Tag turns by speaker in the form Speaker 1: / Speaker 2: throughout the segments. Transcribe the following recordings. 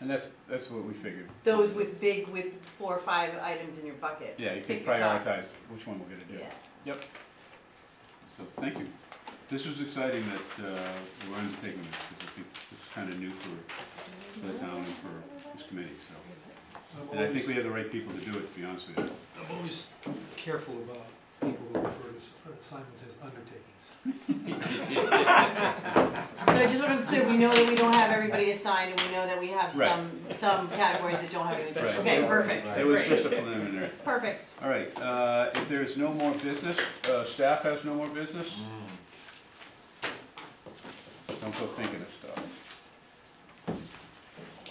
Speaker 1: And that's, that's what we figured.
Speaker 2: Those with big, with four or five items in your bucket.
Speaker 1: Yeah, you can
Speaker 2: Pick your top.
Speaker 1: prioritize which one we're gonna do.
Speaker 2: Yeah.
Speaker 1: Yep. So, thank you. This was exciting that, uh, we're undertaking this, because I think it's kind of new for-
Speaker 2: Mm-hmm.
Speaker 1: for the town and for this committee, so.
Speaker 3: I'm
Speaker 1: And I think
Speaker 3: always,
Speaker 1: we have the right people to do it, to be honest with you.
Speaker 3: I'm always careful about people who refer to s- assignments as undertakings.
Speaker 2: So I just want to be clear, we know that we don't have everybody assigned, and we know that we have
Speaker 1: Right.
Speaker 2: some, some categories that don't have any.
Speaker 1: Right.
Speaker 2: Okay, perfect,
Speaker 1: It was
Speaker 2: great,
Speaker 1: just a preliminary.
Speaker 2: perfect.
Speaker 1: All right, uh, if there's no more business, uh, staff has no more business? Don't go thinking of stuff.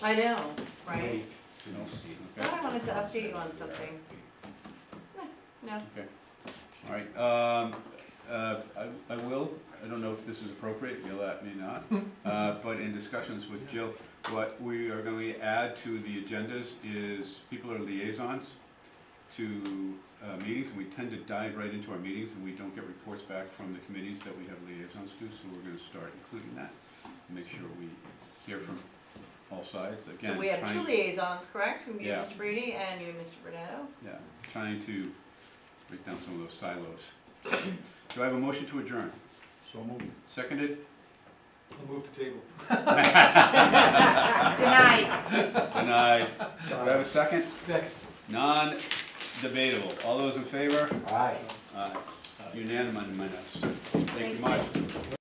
Speaker 2: I know, right?
Speaker 1: No, okay.
Speaker 2: Thought I wanted to update you on something. Eh, No,
Speaker 1: All right, um, uh, I, I will, I don't know if this is appropriate, you'll at me not, uh, but in discussions with Jill, what we are going to add to the agendas is people are liaisons to, uh, meetings, and we tend to dive right into our meetings, and we don't get reports back from the committees that we have liaisons to, so we're gonna start including that. Make sure we hear from all sides, again.
Speaker 2: so we have
Speaker 1: trying-
Speaker 2: two liaisons, correct? You,
Speaker 1: Yeah.
Speaker 2: Mr. Brady, and you, Mr. Bernetto?
Speaker 1: Yeah, trying to break down some of those silos. Do I have a motion to adjourn?
Speaker 4: So moved.
Speaker 1: Seconded?
Speaker 3: I'll move to table.
Speaker 2: Denied.
Speaker 1: And I, do I have a second?
Speaker 3: Second.
Speaker 1: Non-debatable. All those in favor?
Speaker 4: Aye.
Speaker 1: Aye. Unanimous. Thank you
Speaker 2: Thanks,
Speaker 1: much.